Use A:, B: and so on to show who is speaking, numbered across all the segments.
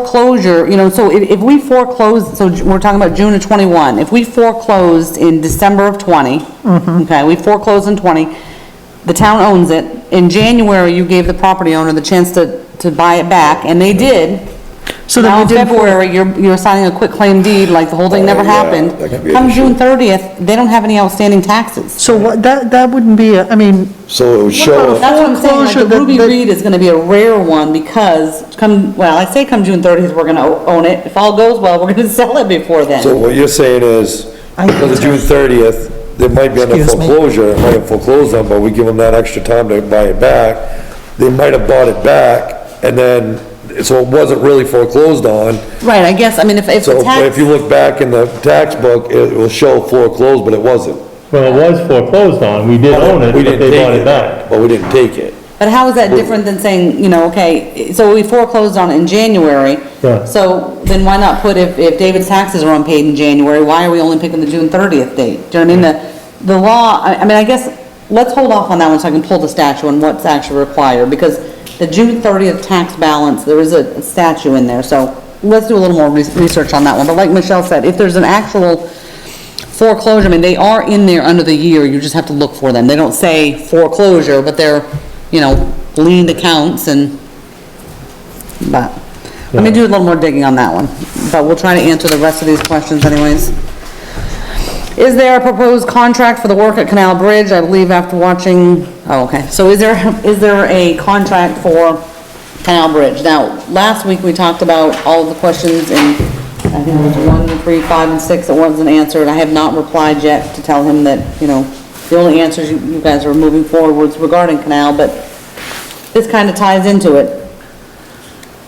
A: foreclosure, you know, so if, if we foreclose, so we're talking about June of '21, if we foreclosed in December of '20,
B: Mm-hmm.
A: okay, we foreclosed in '20, the town owns it, in January, you gave the property owner the chance to, to buy it back, and they did.
B: So then
A: Now
B: we
A: in
B: did-
A: February, you're, you're signing a quick claim deed, like the whole thing never
C: Oh, yeah,
A: happened.
C: that could be an
A: Come
C: issue.
A: June 30th, they don't have any outstanding taxes.
B: So what, that, that wouldn't be, a- I mean,
C: So it would show,
B: about
C: up-
A: That's what I'm saying, like,
B: Foreclosure,
A: the
B: that-
A: Ruby
B: that-
A: Reed is gonna be a rare one because come, well, I say come June 30th, we're gonna o- own it. If all goes well, we're gonna sell it before
C: so
A: then.
C: what you're saying is,
B: I-
C: because of June thirtieth, there might be under
B: Excuse me.
C: foreclosure, it might have foreclosed on, but we give them that extra time to buy it back. They might have bought it back, and then, so it wasn't really foreclosed on.
A: Right, I guess, I mean, if, if
C: So
A: the
C: but if
A: tax,
C: you look back in the tax book, it will show foreclosed, but it wasn't.
D: Well, it was foreclosed on, we did own it,
C: We
D: but
C: didn't
D: they
C: take
D: bought it back.
C: But we didn't take it.
A: but how is that different than saying, you know, okay, so we foreclosed on it in January.
D: Yeah.
A: So then why not put, if, if David's taxes are unpaid in January, why are we only picking the June 30th date? Do you know what I mean? The, the law, I, I mean, I guess, let's hold off on that one so I can pull the statute and what's actually required because the June 30th tax balance, there is a statute in there, so let's do a little more res- research on that one. But like Michelle said, if there's an actual foreclosure, I mean, they are in there under the year, you just have to look for them. They don't say foreclosure, but they're, you know, leaned accounts and, but, let me do a little more digging on that one. But we'll try to answer the rest of these questions anyways. Is there a proposed contract for the work at Canal Bridge? I believe after watching, oh, okay. So is there, is there a contract for Canal Bridge? Now, last week we talked about all of the questions and I think it was one, three, five, and six that wasn't answered. I have not replied yet to tell him that, you know, the only answers you you guys are moving forward was regarding Canal, but this kind of ties into it.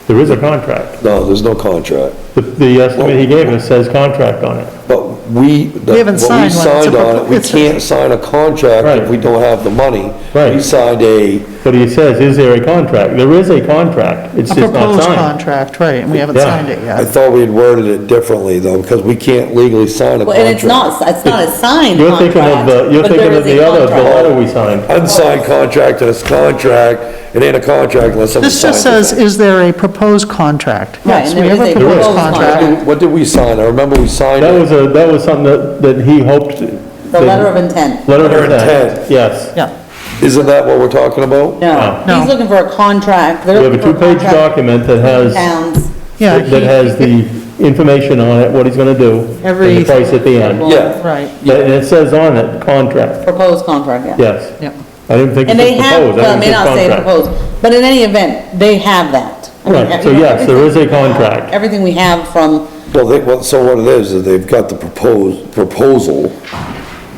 D: There is a contract.
C: No, there's no contract.
D: The, the estimate he gave us says contract on it.
C: But we,
B: We
C: the- what we
B: haven't signed one. It's a
C: signed on, it, we
B: propo- it's a-
C: can't sign a contract if
D: Right.
C: we don't have the money.
D: Right.
C: We signed a,
D: But he says, is there a contract? There is a contract, it's
B: a
D: just not
B: proposed
D: signed.
B: contract, right, and we haven't
D: Yeah.
B: signed it
C: I
B: yet.
C: thought we had worded it differently though, because we can't legally sign a
A: Well, And it's
C: contract.
A: not, it's not a signed
D: You're
A: contract.
D: thinking of the, you're
A: but there
D: thinking
A: is
D: of
A: a
D: the other, the
A: contract.
D: letter we signed.
C: Unsigned contract and it's contract, it ain't a contract unless someone
B: This
C: signs
B: just says,
C: it.
B: is there a proposed contract?
A: Right,
B: Yes,
A: and
B: we
A: there
B: have
A: is
B: a
A: a
B: proposed
A: proposed
B: contract.
A: contract.
C: What did we sign? I remember we signed
D: That was
C: it.
D: a, that was something that, that he hoped.
A: The letter of intent.
C: Letter
D: Letter
C: of
D: of
C: intent.
D: intent, yes.
B: Yeah,
C: Isn't that what we're talking about?
A: No,
B: No.
A: he's looking for a contract.
D: We have a two-page document that has.
A: Towns.
B: yeah.
D: that
B: he-
D: has the information on it, what he's gonna do, and
B: Every-
D: the price at the end.
C: Yeah.
B: Right,
D: Yeah, And it says on it, contract,
A: Proposed contract, yeah.
D: yes.
B: yeah.
D: I didn't think it
A: And they
D: was
A: have,
D: proposed,
A: well,
D: I
A: it may
D: didn't
A: not say
D: think contract.
A: proposed, but in any event, they have that. I mean,
D: Right, so
A: you know,
D: yes, there is a contract.
A: Everything we have from,
C: Well, they, well, so what it is, is they've got the proposed, proposal,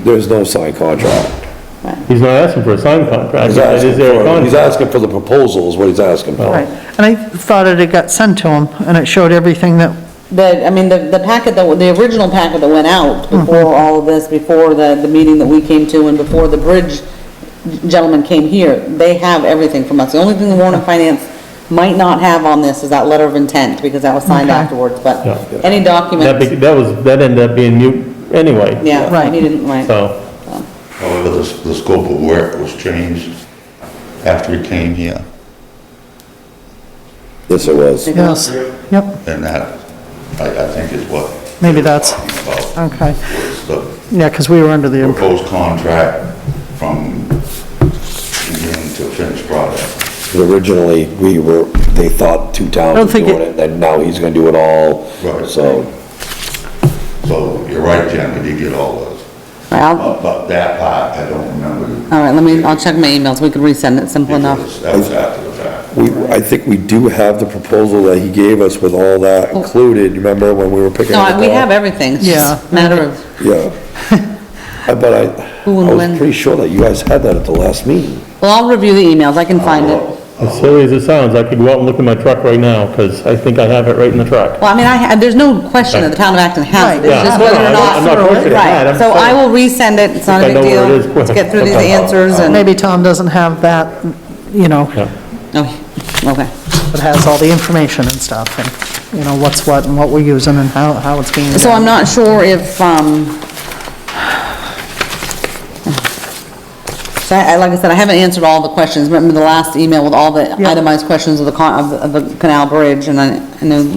C: there's no signed contract.
D: He's not asking for a signed contract,
C: He's
D: he said,
C: asking
D: is there a
C: for, he's
D: contract?
C: asking for the proposal is what he's asking for.
B: Right, and I thought it had got sent to him, and it showed everything that,
A: the, I mean, the, the packet that, the original packet that went out before all of this, before the, the meeting that we came to and before the bridge gentleman came here, they have everything from us. The only thing the Warren Finance might not have on this is that letter of intent, because that was signed
B: Okay.
A: afterwards, but
D: Yeah.
A: any
D: That,
A: document,
D: be- that was, that ended up being mute anyway.
A: yeah,
B: Right.
A: he didn't, right.
D: So,
E: However, the, the scope of work was changed after he came here,
C: Yes, it was.
B: yes, yep,
E: and that, I, I think is what.
B: Maybe that's-
E: About
B: okay.
E: was the
B: Yeah, because we were under the, imp-
E: proposed contract from beginning to finished product.
C: Originally, we were, they thought two towns
B: don't
C: were
B: think
C: doing
B: it-
C: it, and now he's gonna do it all,
E: Right.
C: so.
E: So you're right, Jen, we did get all those,
A: Right, I'll-
E: but, but that part, I don't remember.
A: All right, let me, I'll check my emails, we could resend it, simple enough.
E: Because That was after the fact.
C: We, I think we do have the proposal that he gave us with all that included, remember when we were picking up
A: Oh. No,
C: the
A: we
C: call?
A: have everything, it's just a
B: Yeah.
A: matter of,
C: Yeah. I- But I, I
A: Who and
C: was
A: when?
C: pretty sure that you guys had that at the last meeting.
A: well, I'll review the emails, I can find it.
D: as silly as it sounds, I could go out and look in my truck right now, because I think I have it right in the truck.
A: Well, I mean, I, ha- there's no question that the town of Acton has it,
B: Right,
A: it's
B: yeah.
A: just
B: No, no,
A: whether or
B: I'm
A: not.
B: not- I'm not
D: questioning that,
A: Right,
D: I'm
A: so I
D: saying-
A: will resend it, it's not a
D: I
A: big
D: know where
A: deal,
D: it is,
A: let's get through these
D: somehow.
A: answers and,
B: maybe Tom doesn't have that, you know,
D: Yeah.
A: oh, okay.
B: that has all the information and stuff, and, you know, what's what and what we're using and how, how it's being done.
A: So I'm not sure if, um, So I, I- like I said, I haven't answered all the questions. Remember the last email with all the
B: Yeah.
A: itemized questions of the con, of the- of the canal bridge, and I, I know